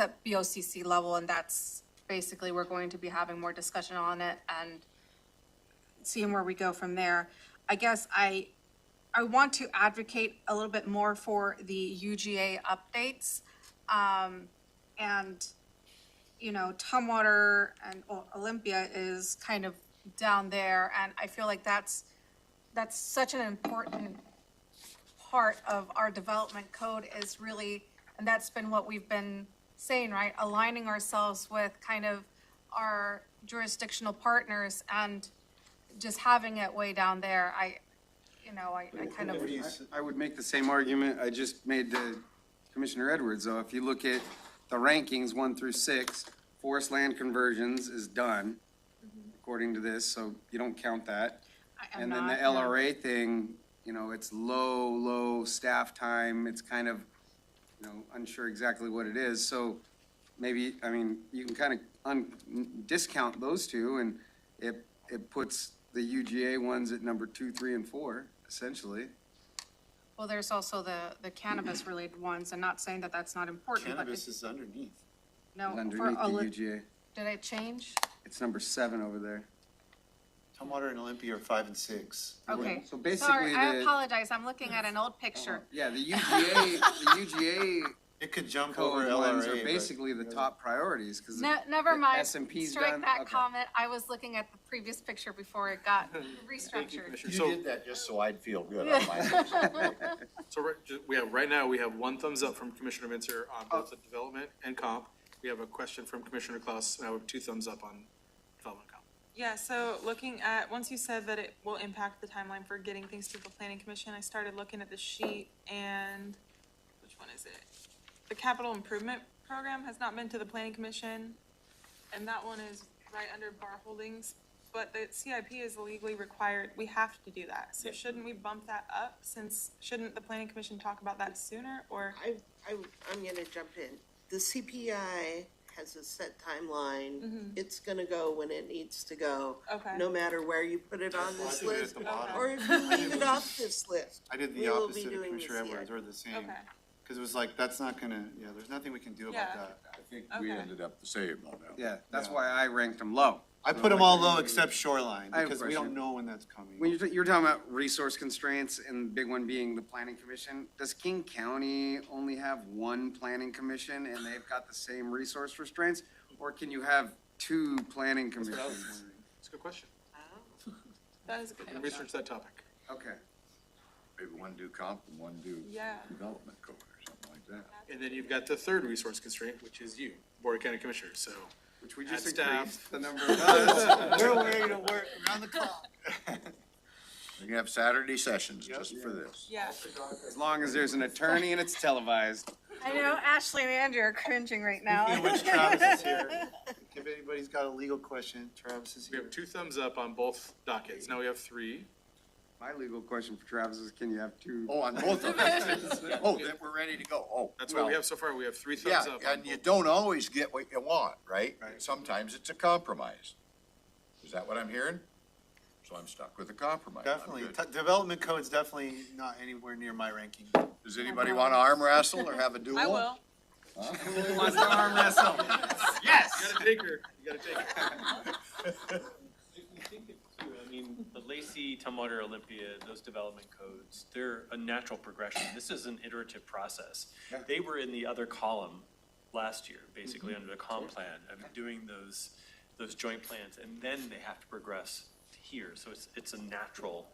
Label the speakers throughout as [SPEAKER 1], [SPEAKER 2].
[SPEAKER 1] at BOCC level, and that's basically, we're going to be having more discussion on it and seeing where we go from there. I guess I, I want to advocate a little bit more for the UGA updates. Um, and, you know, Tumwater and O- Olympia is kind of down there, and I feel like that's, that's such an important part of our development code is really, and that's been what we've been saying, right? Aligning ourselves with kind of our jurisdictional partners and just having it way down there. I, you know, I, I kind of,
[SPEAKER 2] Please, I would make the same argument I just made to Commissioner Edwards, though. If you look at the rankings, one through six, forest land conversions is done, according to this, so you don't count that.
[SPEAKER 1] I am
[SPEAKER 2] And then the
[SPEAKER 1] not.
[SPEAKER 2] LRA thing, you know, it's low, low staff time, it's kind of, you know, unsure exactly what it is, so maybe, I mean, you can kind of un, discount those two, and it, it puts the UGA ones at number two, three, and four, essentially.
[SPEAKER 1] Well, there's also the, the cannabis related ones, and not saying that that's not important, but
[SPEAKER 3] Cannabis
[SPEAKER 1] it-
[SPEAKER 3] is underneath.
[SPEAKER 1] no, Oh, for,
[SPEAKER 2] Underneath the
[SPEAKER 1] Oli-
[SPEAKER 2] UGA,
[SPEAKER 1] did I change?
[SPEAKER 2] it's number seven over there.
[SPEAKER 3] Tumwater and Olympia are five and six.
[SPEAKER 1] Okay.
[SPEAKER 2] So basically,
[SPEAKER 1] Sorry, I
[SPEAKER 2] the, Uh-huh.
[SPEAKER 1] apologize. I'm looking at an old picture.
[SPEAKER 2] yeah, the UGA, the UGA
[SPEAKER 3] It could jump over
[SPEAKER 2] code ones are
[SPEAKER 3] LRA, but
[SPEAKER 2] basically the top priorities, because
[SPEAKER 1] No, never mind.
[SPEAKER 2] S and P's
[SPEAKER 1] Strike
[SPEAKER 2] done?
[SPEAKER 1] that
[SPEAKER 2] Okay.
[SPEAKER 1] comment. I was looking at the previous picture before it got restructured.
[SPEAKER 3] you did that just so I'd feel good on my.
[SPEAKER 4] So right, ju- we have, right now, we have one thumbs up from Commissioner Minzer on
[SPEAKER 5] Oh.
[SPEAKER 4] both the development and comp. We have a question from Commissioner Klaus, and I have two thumbs up on development comp.
[SPEAKER 6] Yeah, so looking at, once you said that it will impact the timeline for getting things to the planning commission, I started looking at the sheet and, which one is it? The capital improvement program has not been to the planning commission, and that one is right under bar holdings. But the CIP is legally required, we have to do that, so shouldn't we bump that up since, shouldn't the planning commission talk about that sooner, or?
[SPEAKER 7] I, I, I'm gonna jump in. The CPI has a set timeline. It's gonna go when it needs to go.
[SPEAKER 6] Mm-hmm. Okay.
[SPEAKER 7] No matter where you put it on
[SPEAKER 3] I
[SPEAKER 7] this
[SPEAKER 3] did it at
[SPEAKER 7] list,
[SPEAKER 3] the bottom.
[SPEAKER 7] or if you leave it off this list.
[SPEAKER 3] I did
[SPEAKER 7] we
[SPEAKER 3] the
[SPEAKER 7] will be
[SPEAKER 3] opposite of
[SPEAKER 7] doing
[SPEAKER 3] Commissioner
[SPEAKER 7] this
[SPEAKER 3] Edwards,
[SPEAKER 7] yet.
[SPEAKER 3] or the same,
[SPEAKER 6] Okay.
[SPEAKER 3] because it was like, that's not gonna, yeah, there's nothing we can do about
[SPEAKER 6] Yeah.
[SPEAKER 3] that.
[SPEAKER 5] I think we
[SPEAKER 6] Okay.
[SPEAKER 5] ended up the same on that.
[SPEAKER 2] yeah, that's why I ranked them low.
[SPEAKER 3] I put them all low except shoreline,
[SPEAKER 2] I have a
[SPEAKER 3] because we don't
[SPEAKER 2] question.
[SPEAKER 3] know when that's coming.
[SPEAKER 2] When you're, you're talking about resource constraints and the big one being the planning commission, does King County only have one planning commission and they've got the same resource restraints? Or can you have two planning commissions?
[SPEAKER 4] It's a good question.
[SPEAKER 6] That is a good
[SPEAKER 4] We can
[SPEAKER 6] idea.
[SPEAKER 4] research that topic.
[SPEAKER 2] Okay,
[SPEAKER 5] Maybe one do comp and one do
[SPEAKER 6] Yeah.
[SPEAKER 5] development code or something like that.
[SPEAKER 4] And then you've got the third resource constraint, which is you, Board of County Commissioners, so.
[SPEAKER 2] which we just
[SPEAKER 4] Add staff.
[SPEAKER 2] increased the number of us.
[SPEAKER 3] We're aware, you know, we're around the clock.
[SPEAKER 5] We can have Saturday sessions just for this.
[SPEAKER 6] Yeah,
[SPEAKER 2] As long as there's an attorney and it's televised.
[SPEAKER 1] I know Ashley and Andrew are cringing right
[SPEAKER 3] You
[SPEAKER 1] now.
[SPEAKER 3] know, which Travis is here. If anybody's got a legal question, Travis is
[SPEAKER 4] We
[SPEAKER 3] here.
[SPEAKER 4] have two thumbs up on both dockets. Now we have three.
[SPEAKER 2] My legal question for Travis is, can you have two?
[SPEAKER 5] Oh, on both of them. Oh, then we're ready to go. Oh.
[SPEAKER 4] That's what we
[SPEAKER 5] well,
[SPEAKER 4] have so far. We have three thumbs up.
[SPEAKER 5] Yeah,
[SPEAKER 4] on
[SPEAKER 5] and you
[SPEAKER 4] both.
[SPEAKER 5] don't always get what you want, right?
[SPEAKER 2] Right.
[SPEAKER 5] Sometimes it's a compromise. Is that what I'm hearing? So I'm stuck with a compromise. I'm
[SPEAKER 3] Definitely,
[SPEAKER 5] good.
[SPEAKER 3] T- development code's definitely not anywhere near my ranking.
[SPEAKER 5] Does anybody want to arm wrestle or have a duel?
[SPEAKER 6] I will.
[SPEAKER 2] Who wants to arm wrestle?
[SPEAKER 4] You gotta take her. You gotta take her.
[SPEAKER 8] I think it's true. I mean, the Lacey, Tumwater, Olympia, those development codes, they're a natural progression. This is an iterative process. They were in the other column last year, basically under the comp plan of doing those, those joint plans. And then they have to progress to here. So it's, it's a natural,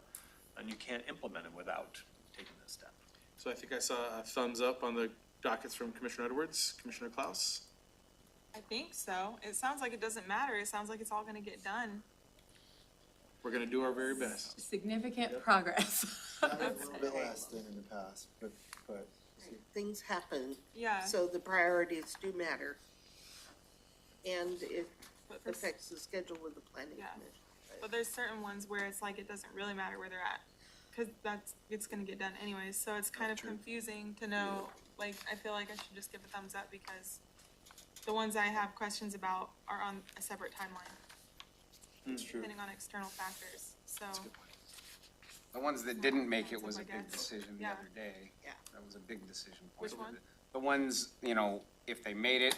[SPEAKER 8] and you can't implement them without taking this step.
[SPEAKER 4] So I think I saw a thumbs up on the dockets from Commissioner Edwards, Commissioner Klaus.
[SPEAKER 6] I think so. It sounds like it doesn't matter. It sounds like it's all gonna get done.
[SPEAKER 4] We're gonna do our very best.
[SPEAKER 9] Significant progress.
[SPEAKER 3] A little bit less than in the past, but, but.
[SPEAKER 7] Things happen,
[SPEAKER 6] Yeah.
[SPEAKER 7] so the priorities do matter. And it
[SPEAKER 6] But for s-
[SPEAKER 7] affects the schedule with the planning
[SPEAKER 6] Yeah.
[SPEAKER 7] commission.
[SPEAKER 6] But there's certain ones where it's like it doesn't really matter where they're at, cause that's, it's gonna get done anyways, so it's kind of confusing to know, like, I feel like I should just give a thumbs up because the ones I have questions about are on a separate timeline,
[SPEAKER 3] It's true.
[SPEAKER 6] depending on external factors, so.
[SPEAKER 2] The ones that didn't make it was a
[SPEAKER 6] Yeah.
[SPEAKER 2] big decision the other day.
[SPEAKER 7] Yeah.
[SPEAKER 2] That was a big decision. point.
[SPEAKER 6] Which one?
[SPEAKER 2] The ones, you know, if they made it,